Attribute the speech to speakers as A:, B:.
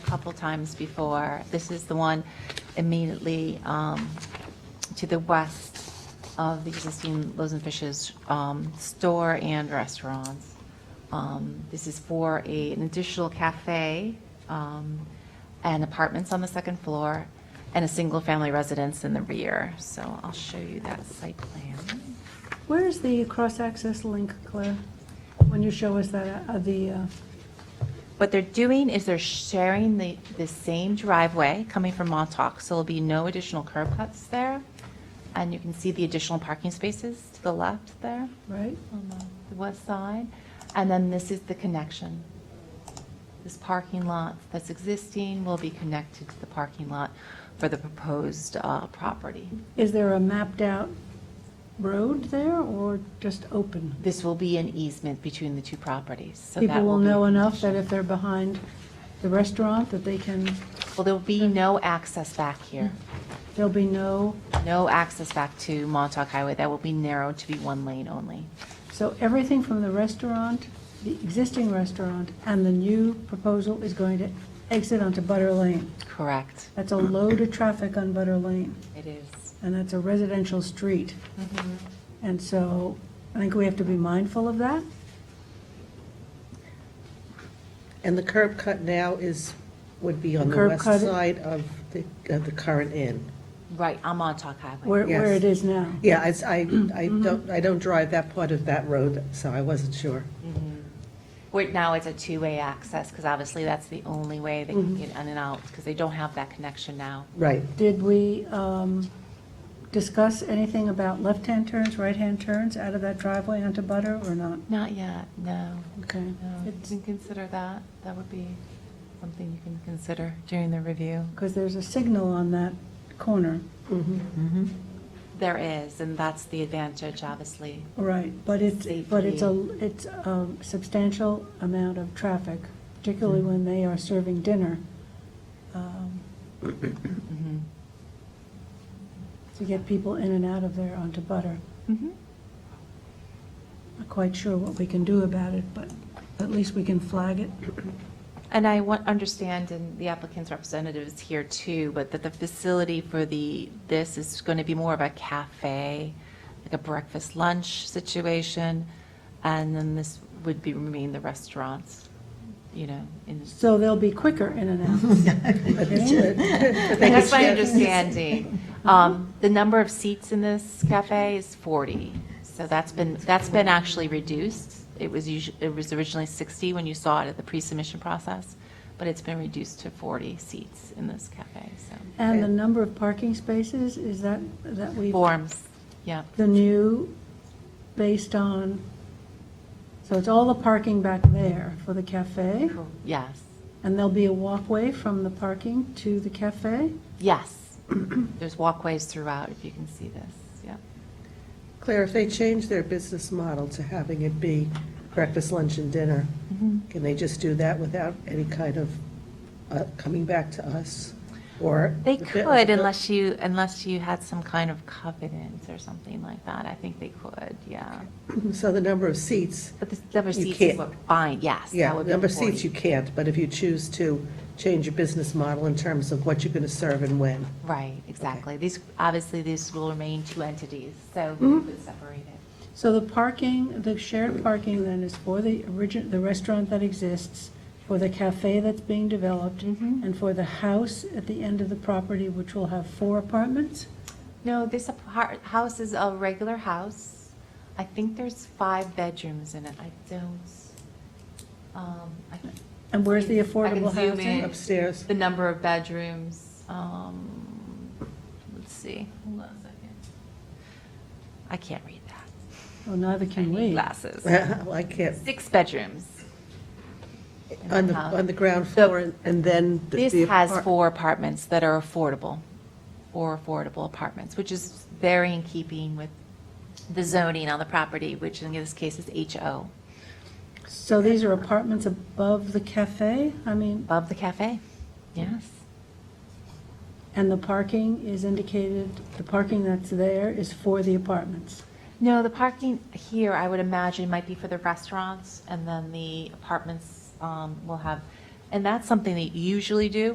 A: couple times before. This is the one immediately um, to the west of the existing Loaves and Fishes um, store and restaurants. Um, This is for a- an additional cafe um, and apartments on the second floor and a single-family residence in the rear. So I'll show you that site plan.
B: Where is the cross-access link, Claire? When you show us that, uh, the, uh,
A: What they're doing is they're sharing the, the same driveway coming from Montauk, so there'll be no additional curb cuts there. And you can see the additional parking spaces to the left there
B: right?
A: on the- the west side. And then this is the connection. This parking lot that's existing will be connected to the parking lot for the proposed uh, property.
B: Is there a mapped-out road there or just open?
A: This will be an easement between the two properties, so that will
B: People will
A: be-
B: know enough that if they're behind the restaurant, that they can,
A: Well, there'll be no access back here.
B: there'll be no,
A: no access back to Montauk Highway. That will be narrowed to be one lane only.
B: so everything from the restaurant, the existing restaurant, and the new proposal is going to exit onto Butter Lane.
A: Correct.
B: That's a load of traffic on Butter Lane,
A: It is.
B: and that's a residential street. And so I think we have to be mindful of that.
C: And the curb cut now is, would be on
B: The
C: the
B: curb
C: west
B: cut-
C: side of the, of the current inn.
A: Right, on Montauk Highway.
B: where, where
C: Yes.
B: it is now.
C: Yeah, I, I
A: Mm-hmm.
C: I don't, I don't drive that part of that road, so I wasn't sure.
A: Where now it's a two-way access, because obviously that's the only way they can get in and out, because they don't have that connection now.
C: Right.
B: Did we um, discuss anything about left-hand turns, right-hand turns out of that driveway onto Butter or not?
A: Not yet, no.
B: Okay.
A: No, you can consider that. That would be something you can consider during the review.
B: Because there's a signal on that corner,
A: There is, and that's the advantage, obviously.
B: right, but it's, but it's a,
A: Safety.
B: it's a substantial amount of traffic, particularly when they are serving dinner. um, To get people in and out of there onto Butter.
A: Mhm.
B: Not quite sure what we can do about it, but at least we can flag it.
A: And I want, understand, and the applicant's representative is here too, but that the facility for the, this is going to be more of a cafe, like a breakfast, lunch situation, and then this would be, remain the restaurants, you know, in.
B: So they'll be quicker in and out.
A: That's my understanding. Um, The number of seats in this cafe is 40, so that's been, that's been actually reduced. It was usually, it was originally 60 when you saw it at the pre-submission process, but it's been reduced to 40 seats in this cafe, so.
B: And the number of parking spaces, is that, that we,
A: Forms, yeah,
B: the new, based on, so it's all the parking back there for the cafe?
A: yes,
B: And there'll be a walkway from the parking to the cafe?
A: yes. There's walkways throughout, if you can see this, yeah.
C: Claire, if they change their business model to having it be breakfast, lunch, and dinner, can they just do that without any kind of uh, coming back to us? Or?
A: They could unless you, unless you had some kind of covenant or something like that, I think they could, yeah.
C: So the number of seats,
A: But the number of
C: You
A: seats is
C: can't-
A: what, fine, yes.
C: yeah,
A: that would be
C: number of seats
A: 40.
C: you can't, but if you choose to change your business model in terms of what you're going to serve and when.
A: Right, exactly. These, obviously, these will remain two entities, so we
C: Mm-hmm.
A: could separate it.
B: So the parking, the shared parking then is for the origin, the restaurant that exists, for the cafe that's being developed,
A: Mm-hmm.
B: and for the house at the end of the property, which will have four apartments?
A: No, this apart, house is a regular house. I think there's five bedrooms in it. I don't, um, I,
B: And where's the
A: I can
B: affordable
A: zoom
B: housing?
A: in.
C: Upstairs.
A: the number of bedrooms, um, let's see, hold on a second. I can't read that.
B: Well, neither
A: I
B: can
A: need
B: we.
A: glasses.
C: I can't,
A: Six bedrooms. in
C: on the,
A: house.
C: on the ground floor and then. the-
A: Uh, This
C: the
A: has
C: apart-
A: four apartments that are affordable, four affordable apartments, which is very in keeping with the zoning on the property, which in this case is HO,
B: So these are apartments above the cafe? I mean,
A: above the cafe. Yes.
B: and the parking is indicated, the parking that's there is for the apartments?
A: No, the parking here, I would imagine, might be for the restaurants, and then the apartments um, will have And that's something that you usually do,